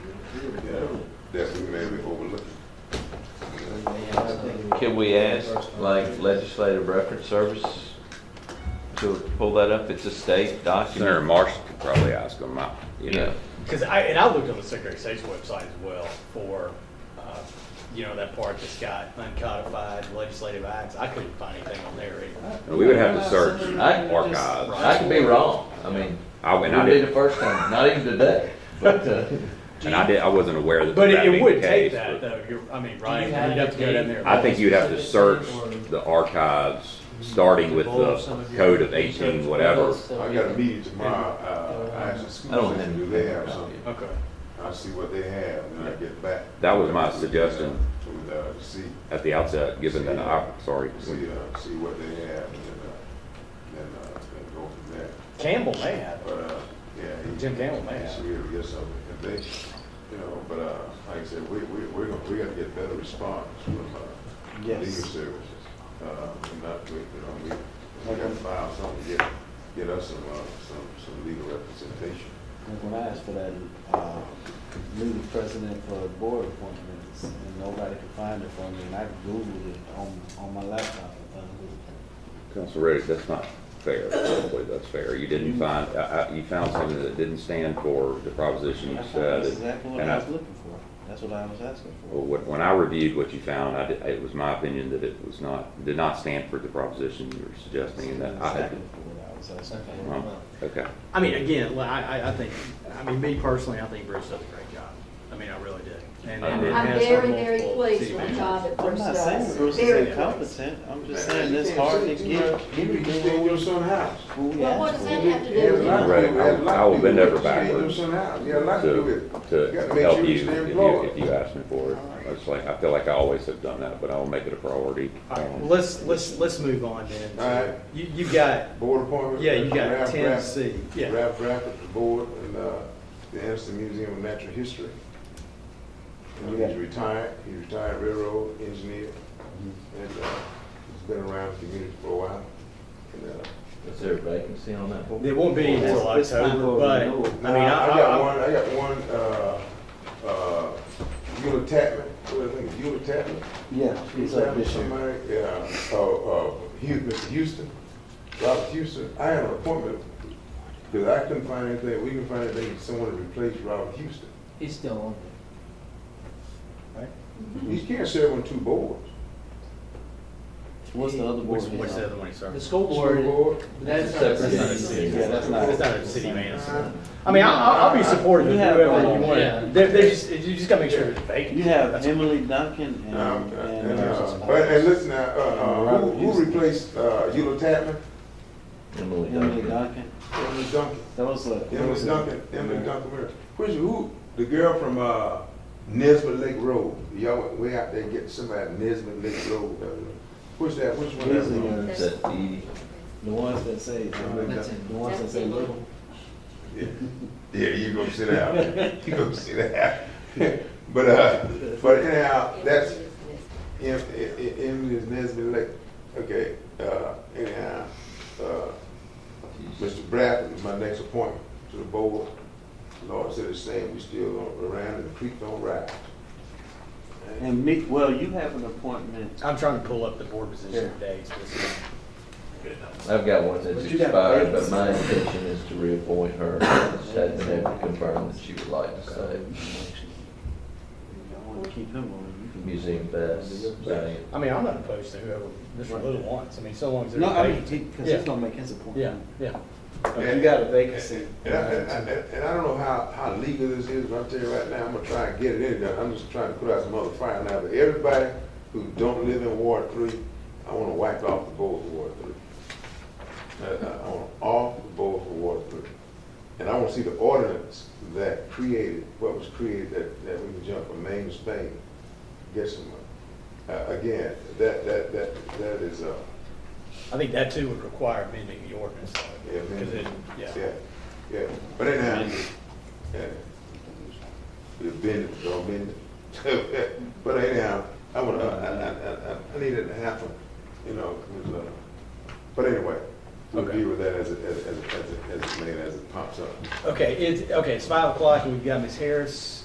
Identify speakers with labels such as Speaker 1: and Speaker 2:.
Speaker 1: that we may be overlooking.
Speaker 2: Can we ask, like, legislative reference service to pull that up? It's a state
Speaker 3: Senator
Speaker 2: document.
Speaker 3: Marshall could probably ask them out, you know.
Speaker 2: Yeah,
Speaker 4: Because I, and I looked on the Secretary of State's website as well for, uh, you know, that part that's got uncodified legislative acts. I couldn't find anything on there either.
Speaker 3: And we would have to search
Speaker 2: I-
Speaker 3: archives.
Speaker 2: I could be wrong. I mean,
Speaker 3: I
Speaker 2: we
Speaker 3: went, I
Speaker 2: did the
Speaker 3: did,
Speaker 2: first time, not even today, but, uh,
Speaker 3: and I did, I wasn't aware that.
Speaker 4: But
Speaker 3: that
Speaker 4: it-
Speaker 3: being
Speaker 4: it
Speaker 3: the
Speaker 4: would
Speaker 3: case,
Speaker 4: take
Speaker 3: but
Speaker 4: that though, you're, I mean, Ryan,
Speaker 5: have
Speaker 4: you'd have to go down there.
Speaker 3: I think you'd have to search the archives, starting with the code of eighteen, whatever.
Speaker 1: I got a meeting tomorrow, uh, I asked the
Speaker 2: I
Speaker 1: school
Speaker 2: don't
Speaker 1: system,
Speaker 2: have
Speaker 1: do they have
Speaker 2: any
Speaker 1: something?
Speaker 4: Okay.
Speaker 1: I'll see what they have when I get back.
Speaker 3: That was my suggestion.
Speaker 1: To, uh, see,
Speaker 3: At the outset, given that, I, sorry,
Speaker 1: see, uh, see what they have and, uh, and, uh, and go from there.
Speaker 4: Campbell may have it.
Speaker 1: But, uh, yeah. he-
Speaker 4: Jim Campbell may
Speaker 1: Yes,
Speaker 4: have.
Speaker 1: we gotta get something, if they, you know, but, uh, like I said, we, we, we're gonna, we gotta get better response from, uh, legal services. Uh, and not, we, you know, we, we gotta file something, get, get us some, uh, some, some legal representation.
Speaker 5: Like when I asked for that, uh, new president for board appointments, and nobody could find it for me, and I Googled it on, on my laptop. and found it.
Speaker 3: Council Reddick, that's not fair. I don't believe that's fair. You didn't find, I, I, you found something that didn't stand for the proposition you
Speaker 5: I found-
Speaker 3: said.
Speaker 5: That's exactly what
Speaker 3: And
Speaker 5: I
Speaker 3: I-
Speaker 5: was looking for, that's what I was asking
Speaker 3: Well,
Speaker 5: for.
Speaker 3: When when I reviewed what you found, I did- it was my opinion that it was not, did not stand for the proposition you were suggesting and that I had.
Speaker 5: Exactly what I was asking for.
Speaker 3: Well, Okay.
Speaker 4: I mean, again, li- I, I, I think, I mean, me personally, I think Bruce does a great job. I mean, I really do. And- and it
Speaker 6: I'm
Speaker 4: has
Speaker 6: very,
Speaker 4: our
Speaker 6: very
Speaker 4: multiple
Speaker 6: pleased
Speaker 4: city
Speaker 6: with the
Speaker 4: managers.
Speaker 6: job that
Speaker 5: I'm
Speaker 6: Bruce
Speaker 5: not saying
Speaker 6: does.
Speaker 5: Bruce
Speaker 6: Very
Speaker 5: is
Speaker 6: pleased.
Speaker 5: incompetent, I'm just saying it's hard to get
Speaker 1: You need to stay in your son's house.
Speaker 5: who we
Speaker 6: Well, what
Speaker 5: ask
Speaker 6: does
Speaker 5: for.
Speaker 6: that have to do with it?
Speaker 3: Right, I will bend over backwards
Speaker 1: Yeah, a lot to do
Speaker 3: To,
Speaker 1: with it.
Speaker 3: to
Speaker 1: You gotta make
Speaker 3: help
Speaker 1: sure
Speaker 3: you,
Speaker 1: stay
Speaker 3: if you,
Speaker 1: employed.
Speaker 3: if you ask me for it. It's like, I feel like I always have done that, but I'll make it a priority.
Speaker 4: All right, well,
Speaker 3: Um,
Speaker 4: let's, let's, let's move on then.
Speaker 1: All right.
Speaker 4: You, you've got,
Speaker 1: Board appointment.
Speaker 4: yeah, you got
Speaker 1: Ralph
Speaker 4: ten
Speaker 1: Rapp-
Speaker 4: C. Yeah,
Speaker 1: Ralph Rapp at the board and, uh, the Anderson Museum of Natural History. And he's retired, he's retired railroad engineer and, uh, he's been around the community for a while. And, uh,
Speaker 2: is there a vacancy on that board?
Speaker 4: it won't be until
Speaker 5: It's- it's time
Speaker 4: October,
Speaker 5: for
Speaker 4: but, I
Speaker 5: renewal.
Speaker 4: mean,
Speaker 1: Nah,
Speaker 4: I, I.
Speaker 1: got one. I got one. Uh, uh, Eula Tapman. What do I think? Eula Tapman.
Speaker 5: Yeah, he's up this year.
Speaker 1: Somebody. Yeah. Oh, uh, Hugh, Mr. Houston. Robert Houston. I had an appointment because I couldn't find anything. We couldn't find anything. Someone to replace Robert Houston.
Speaker 7: He's still on
Speaker 5: Mm-hmm.
Speaker 1: He can't serve on two boards.
Speaker 5: What's the other board?
Speaker 4: What's, what's the other one,
Speaker 7: there.
Speaker 4: sorry?
Speaker 7: The school
Speaker 1: Two
Speaker 7: board,
Speaker 1: board.
Speaker 7: that's not
Speaker 2: Separate.
Speaker 7: a
Speaker 2: That's not a
Speaker 7: city.
Speaker 5: Yeah, that's not.
Speaker 4: It's not a city manager.
Speaker 1: Uh,
Speaker 4: I mean, I- I'll, I'll be supportive of
Speaker 5: You have
Speaker 4: whoever
Speaker 5: all-
Speaker 4: you
Speaker 7: yeah.
Speaker 4: want. They're, they're just, you just gotta make sure it's vacant.
Speaker 5: You have Emily Duncan and,
Speaker 1: Um,
Speaker 5: and.
Speaker 1: and,
Speaker 5: Emerson
Speaker 1: uh,
Speaker 5: Spires.
Speaker 1: but and listen now, uh, uh, who, who replaced uh, Eula Tapman?
Speaker 2: Emily
Speaker 5: Emily
Speaker 2: Duncan.
Speaker 5: Duncan,
Speaker 1: Emily Duncan.
Speaker 5: that was a. that was
Speaker 1: Emily
Speaker 5: a-
Speaker 1: Duncan, Emily Duncan, Mary. Which, who, the girl from, uh, Nesbit Lake Road, y'all, went way out there getting somebody at Nesbit Lake Road, uh, who's that, which one?
Speaker 5: These
Speaker 1: that
Speaker 5: are
Speaker 1: was?
Speaker 5: your-
Speaker 2: Is that E? Edie?
Speaker 5: uh, The ones that say,
Speaker 1: That's
Speaker 5: the ones that say little.
Speaker 1: Yeah, Yeah, you gonna sit down, you gonna sit down. But, uh, but anyhow, that's, Em, Em- Emily is Nesbit Lake, okay, uh, anyhow, uh, Mr. Bradford is my next appointment to the board. Lord said the same, we still around and the creek don't rise.
Speaker 5: And Mick, well, you have an appointment.
Speaker 4: I'm trying to pull up the board position dates.
Speaker 2: I've got one that's
Speaker 5: But you got
Speaker 2: expired, but
Speaker 5: vacancy.
Speaker 2: my intention is to reappoint her. She hasn't been able to confirm that she would like to stay.
Speaker 5: I want to keep him on. you can-
Speaker 2: Museum Fest, Diane.
Speaker 4: I mean, I'm not opposed to whoever Mr. Little wants. I mean, so long as there's
Speaker 5: No,
Speaker 4: a
Speaker 5: I mean,
Speaker 4: vacancy.
Speaker 5: because
Speaker 4: Yeah.
Speaker 5: he's gonna make his
Speaker 4: Yeah,
Speaker 5: appointment.
Speaker 4: yeah.
Speaker 5: If you got a vacancy.
Speaker 1: And I, and I, and I don't know how, how legal this is, but I'm telling you right now, I'm gonna try and get it in there. I'm just trying to put out some other fire now. But everybody who don't live in Ward Three, I wanna wipe off the board for Ward Three. I, I want off the board for Ward Three. And I wanna see the ordinance that created, what was created, that, that we can jump from Maine to Spain, get some, uh, again, that, that, that, that is, uh,
Speaker 4: I think that too would require amending the ordinance. though,
Speaker 1: Yeah,
Speaker 4: 'cause it-
Speaker 1: man.
Speaker 4: Yeah.
Speaker 1: Yeah, yeah. But anyhow, yeah. You've been, don't been. But anyhow, I wanna, I, I, I, I need it to happen, you know, 'cause, uh, but anyway, we'll
Speaker 4: Okay.
Speaker 1: deal with that as it, as, it- as, it- as it, as it, may, as it pops up.
Speaker 4: Okay, it's, okay, it's five o'clock and we've got Ms. Harris